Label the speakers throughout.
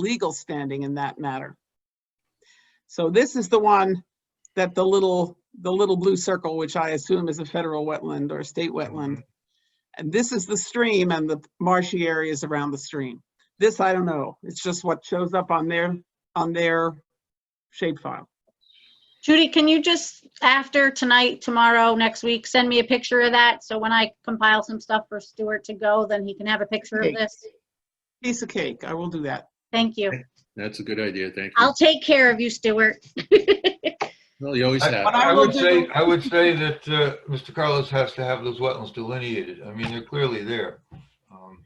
Speaker 1: legal standing in that matter. So this is the one that the little, the little blue circle, which I assume is a federal wetland or a state
Speaker 2: Mm-hmm.
Speaker 1: wetland. And this is the stream and the marshy areas around the stream. This, I don't know. It's just what shows up on their, on their shapefile.
Speaker 3: Judy, can you just, after tonight, tomorrow, next week, send me a picture of that? So when I compile some stuff for Stuart to go, then he can have a picture
Speaker 1: Okay.
Speaker 3: of this.
Speaker 1: Piece of cake. I will do that.
Speaker 3: Thank you.
Speaker 4: That's a good idea, thank you.
Speaker 3: I'll take care of you, Stuart.
Speaker 4: Well, you always
Speaker 2: I-
Speaker 4: have.
Speaker 1: But I
Speaker 2: I
Speaker 1: will
Speaker 2: would say,
Speaker 1: do-
Speaker 2: I would say that uh, Mr. Carlos has to have those wetlands delineated. I mean, they're clearly there. Um,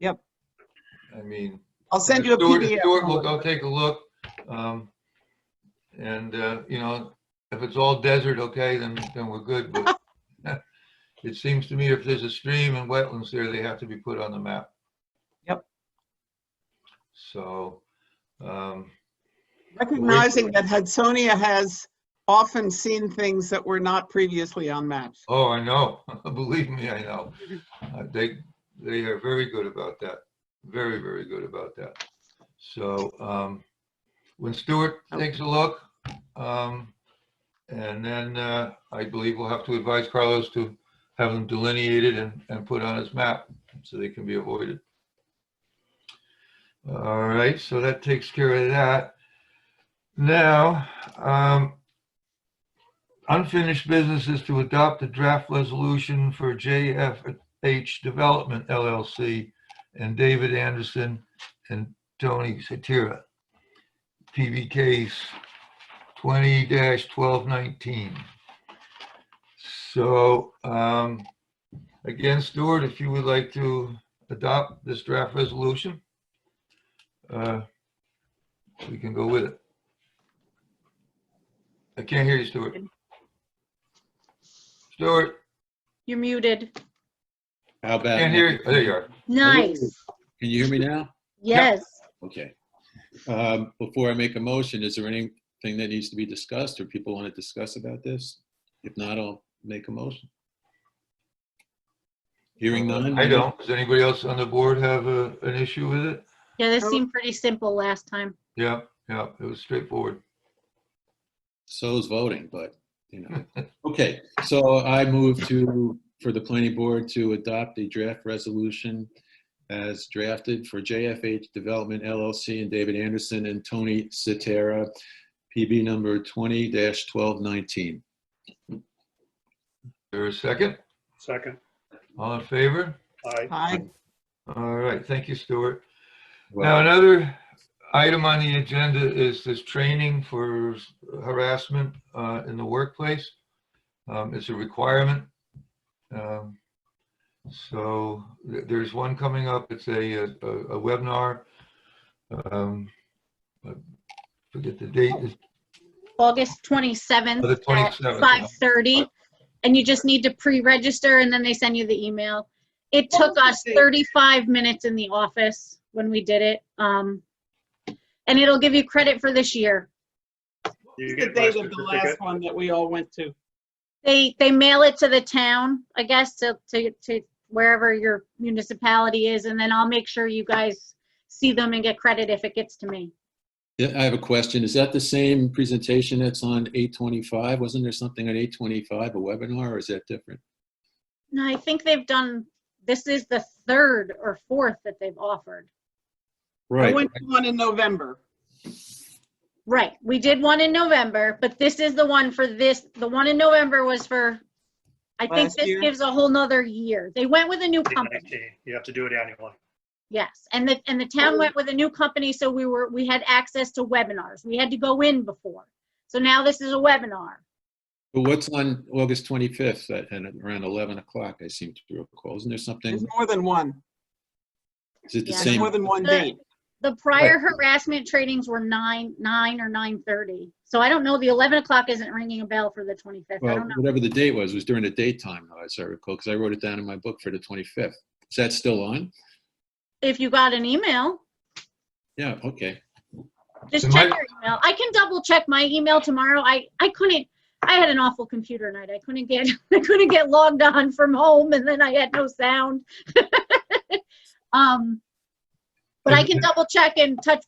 Speaker 1: Yep.
Speaker 2: I mean.
Speaker 1: I'll send you a
Speaker 2: Stuart-
Speaker 1: PDF.
Speaker 2: Stuart will go take a look. um, And, uh, you know, if it's all desert, okay, then, then we're good. But it seems to me if there's a stream and wetlands there, they have to be put on the map.
Speaker 1: Yep.
Speaker 2: So, um,
Speaker 1: Recognizing that Hudsonia has often seen things that were not previously on maps.
Speaker 2: Oh, I know. Believe me, I know. Uh, They, they are very good about that. Very, very good about that. So um, when Stuart takes a look, um, and then uh, I believe we'll have to advise Carlos to have them delineated and, and put on his map so they can be avoided. All right, so that takes care of that. Now, um, Unfinished business is to adopt the draft resolution for JFH Development LLC and David Anderson and Tony Satira. PB case twenty twelve nineteen. So, um, again, Stuart, if you would like to adopt this draft resolution, uh, we can go with it. I can't hear you, Stuart. Stuart,
Speaker 3: You're muted.
Speaker 4: How about?
Speaker 2: can't hear you. Oh, There you are.
Speaker 3: Nice.
Speaker 4: Can you hear me now?
Speaker 3: Yes.
Speaker 4: Okay. Um, Before I make a motion, is there anything that needs to be discussed or people want to discuss about this? If not, I'll make a motion. Hearing none?
Speaker 2: Uh, I don't. Does anybody else on the board have a, an issue with it?
Speaker 3: Yeah, this seemed pretty simple last time.
Speaker 2: Yeah, yeah, it was straightforward.
Speaker 4: So is voting, but, you know. Okay, so I move to, for the planning board to adopt the draft resolution as drafted for JFH Development LLC and David Anderson and Tony Cetera, PB number 20-1219.
Speaker 2: There a second?
Speaker 5: Second,
Speaker 2: All in favor?
Speaker 5: aye.
Speaker 1: I,
Speaker 2: All right, thank you, Stuart. Now,
Speaker 4: Well,
Speaker 2: another item on the agenda is this training for harassment uh, in the workplace. Um, It's a requirement. Um, So th- there's one coming up. It's a a- a webinar. Um, I Forget the date. It's-
Speaker 3: August
Speaker 2: Oh, the
Speaker 3: 27th at
Speaker 2: 27th,
Speaker 3: 5:30. And you just need to pre-register and then they send you the email. It took us 35 minutes in the office when we did it. Um, and it'll give you credit for this year.
Speaker 5: Do
Speaker 1: it's the
Speaker 5: you get my
Speaker 1: date of the
Speaker 5: certificate?
Speaker 1: last one that we all went to.
Speaker 3: They, they mail it to the town, I guess, to, to, to wherever your municipality is. And then I'll make sure you guys see them and get credit if it gets to me.
Speaker 4: yeah, I have a question. Is that the same presentation that's on 825? Wasn't there something on 825, a webinar, or is that different?
Speaker 3: No, I think they've done, this is the third or fourth that they've offered.
Speaker 1: I
Speaker 4: Right,
Speaker 1: went to one in November.
Speaker 3: Right, we did one in November, but this is the one for this, the one in November was for, I think
Speaker 1: Last
Speaker 3: this
Speaker 1: year?
Speaker 3: gives a whole nother year. They went with a new company,
Speaker 5: 2019. You have to do it annually.
Speaker 3: yes, and the, and the town went with a new company, so we were, we had access to webinars. We had to go in before. So now this is a webinar.
Speaker 4: but what's on August 25th at and around 11 o'clock, I seem to recall? Isn't there something,
Speaker 1: There's more than one.
Speaker 4: is it the
Speaker 3: Yeah.
Speaker 1: There's
Speaker 4: same?
Speaker 1: more than one date.
Speaker 3: The prior harassment trainings were nine, nine or nine thirty. So I don't know, the eleven o'clock isn't ringing a bell for the twenty-fifth, I
Speaker 4: Well,
Speaker 3: don't know.
Speaker 4: whatever the date was, was during the daytime, though, as I recall, because I wrote it down in my book for the 25th. Is that still on?
Speaker 3: If you got an email,
Speaker 4: Yeah, okay.
Speaker 3: Just
Speaker 2: It
Speaker 3: check
Speaker 2: might-
Speaker 3: your email. I can double check my email tomorrow. I, I couldn't, I had an awful computer night. I couldn't get, I couldn't get logged on from home and then I had no sound. Um, but I can double check and touch